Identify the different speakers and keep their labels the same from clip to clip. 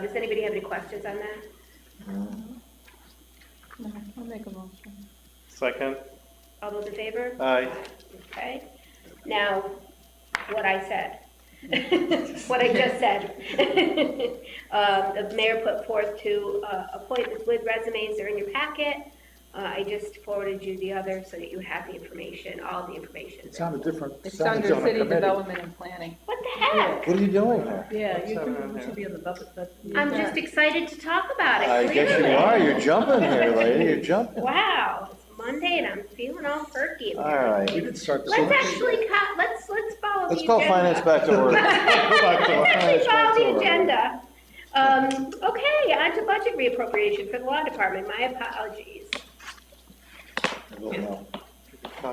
Speaker 1: Does anybody have any questions on that?
Speaker 2: I'll make a motion.
Speaker 3: Second,
Speaker 1: All those in favor?
Speaker 3: aye.
Speaker 1: Okay, now, what I said, what I just said. Uh, The mayor put forth two uh, appointments with resumes, they're in your packet. Uh, I just forwarded you the other so that you have the information, all the information.
Speaker 4: It's on a different.
Speaker 2: It's
Speaker 4: sounds
Speaker 2: under
Speaker 4: on a
Speaker 2: city
Speaker 4: committee.
Speaker 2: development and planning.
Speaker 1: What the heck?
Speaker 4: What are you doing there?
Speaker 5: Yeah,
Speaker 3: Let's
Speaker 5: you
Speaker 3: have it
Speaker 5: can-
Speaker 3: on
Speaker 5: you
Speaker 3: there.
Speaker 5: should be on the budget, but.
Speaker 1: I'm just excited to talk about it.
Speaker 4: I guess you
Speaker 1: clearly.
Speaker 4: are, you're jumping here, lady, you're jumping.
Speaker 1: Wow, it's Monday and I'm feeling all perky.
Speaker 4: All right.
Speaker 6: We did start this.
Speaker 1: Let's actually, co- let's, let's follow the
Speaker 4: Let's go
Speaker 1: agenda.
Speaker 4: finance back to work.
Speaker 1: Let's actually
Speaker 4: Finance back to
Speaker 1: follow the
Speaker 4: work.
Speaker 1: agenda. Um, okay, on to budget reappropriation for the law department, my apologies.
Speaker 4: I don't know.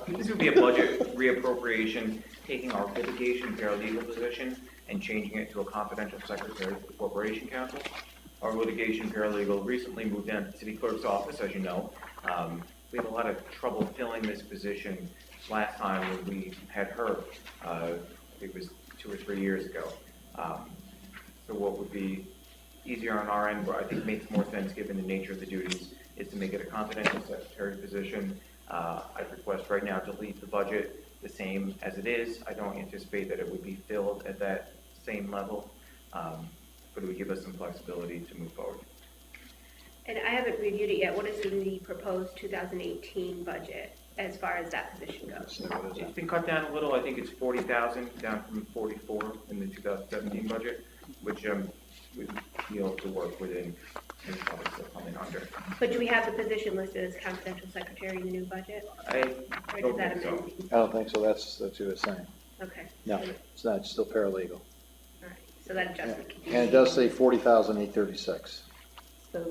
Speaker 7: This would be a budget reappropriation, taking our litigation paralegal position and changing it to a confidential secretary for the corporation counsel. Our litigation paralegal recently moved down to the city clerk's office, as you know. Um, We had a lot of trouble filling this position last time when we had her, uh, I think it was two or three years ago. Um, So what would be easier on our end, but I think makes more sense given the nature of the duties, is to make it a confidential secretary position uh, I request right now to leave the budget the same as it is. I don't anticipate that it would be filled at that same level, um, but it would give us some flexibility to move forward.
Speaker 1: And I haven't reviewed it yet, what is in the proposed 2018 budget as far as that position goes?
Speaker 7: It's been cut down a little, I think it's forty thousand, down from forty-four in the two thousand seventeen budget, which, um, we feel to work within, and probably still coming under.
Speaker 1: But do we have the position listed as confidential secretary in the new budget?
Speaker 7: I
Speaker 1: Or does
Speaker 7: don't
Speaker 1: that
Speaker 7: think so.
Speaker 1: amend?
Speaker 4: I don't think so, that's, that's what you were saying.
Speaker 1: Okay,
Speaker 4: No, it's not, it's still paralegal.
Speaker 1: all right, so that adjustment can be.
Speaker 4: And it does say forty thousand eight thirty-six,
Speaker 5: So,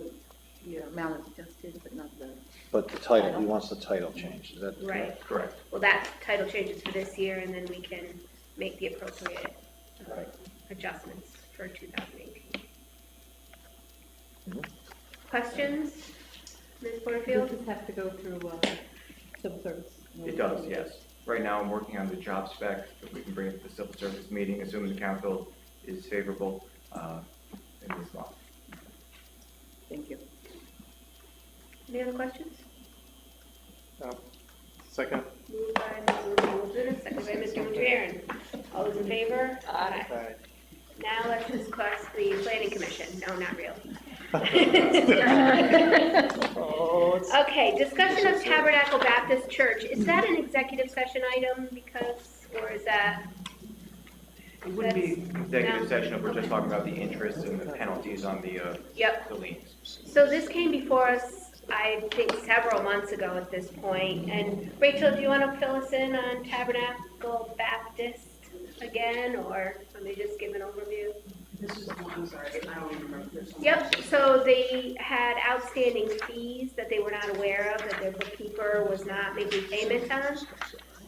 Speaker 5: yeah, amount is adjusted, but not the.
Speaker 4: but the title, he wants the title changed, is that?
Speaker 1: Right.
Speaker 7: Correct.
Speaker 1: Well, that title changes for this year, and then we can make the appropriate uh,
Speaker 4: Right.
Speaker 1: adjustments for 2018.
Speaker 4: Mhm.
Speaker 1: Questions, Ms.
Speaker 5: Does
Speaker 1: Porterfield?
Speaker 5: this have to go through, uh, civil service?
Speaker 7: It does, yes. Right now, I'm working on the job spec, that we can bring it to the civil service meeting, assuming the council is favorable uh, in this law.
Speaker 5: Thank you.
Speaker 1: Any other questions?
Speaker 3: Um, Second,
Speaker 1: Moved by Ms. Lozada, second by Mr. Mangiaran. All those in favor? Aye.
Speaker 3: aye.
Speaker 1: Now let's discuss the planning commission. No, not really.
Speaker 5: Oh, it's.
Speaker 1: Okay, discussion of Tabernacle Baptist Church. Is that an executive session item because, or is that?
Speaker 7: It wouldn't be
Speaker 1: No.
Speaker 7: executive session if we're just talking about the interest and the penalties on the uh,
Speaker 1: Yep,
Speaker 7: the liens.
Speaker 1: So this came before us, I think, several months ago at this point. And Rachel, do you want to fill us in on Tabernacle Baptist again, or let me just give an overview?
Speaker 8: This is the one, I'm sorry, I don't even remember this one.
Speaker 1: Yep, so they had outstanding fees that they were not aware of, that their bookkeeper was not making payments on.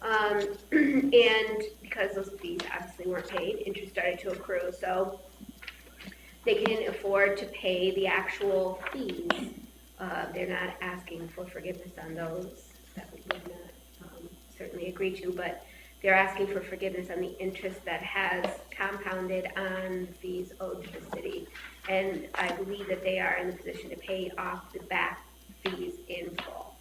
Speaker 1: Um, and because those fees obviously weren't paid, interest started to accrue, so they couldn't afford to pay the actual fees. Uh, they're not asking for forgiveness on those, that we would not, um, certainly agree to, but they're asking for forgiveness on the interest that has compounded on fees owed to the city. And I believe that they are in the position to pay off the back fees in full,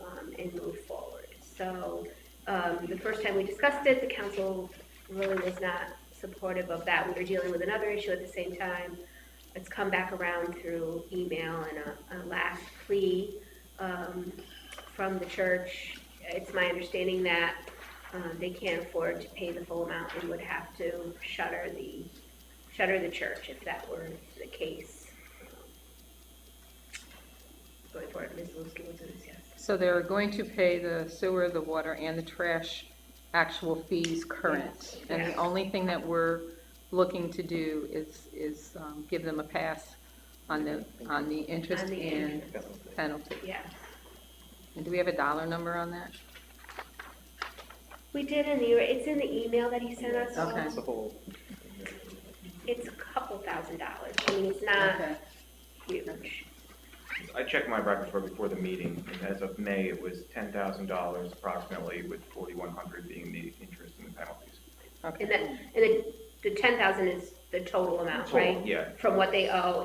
Speaker 1: um, and move forward. So, um, the first time we discussed it, the council really was not supportive of that. We were dealing with another issue at the same time. It's come back around through email and a, a last plea, um, from the church. It's my understanding that, um, they can't afford to pay the full amount and would have to shutter the, shutter the church if that were the case. Going forward, Ms. Lewski will do this, yes.
Speaker 2: So they're going to pay the sewer, the water, and the trash actual fees current. And the
Speaker 1: Yes.
Speaker 2: only thing that we're looking to do is, is um, give them a pass on the, on the interest
Speaker 1: On the
Speaker 2: and penalty.
Speaker 1: Yeah.
Speaker 2: And do we have a dollar number on that?
Speaker 1: We did in the, it's in the email that he sent us.
Speaker 2: Okay.
Speaker 3: It's a whole,
Speaker 1: It's a couple thousand dollars. I mean, it's not
Speaker 2: Okay.
Speaker 1: huge.
Speaker 7: I checked my records for before the meeting, and as of May, it was ten thousand dollars approximately, with forty-one hundred being the interest and the penalties.
Speaker 2: Okay.
Speaker 1: And the, and the, the ten thousand is the total amount,
Speaker 7: Total,
Speaker 1: right?
Speaker 7: Yeah,
Speaker 1: From what they owe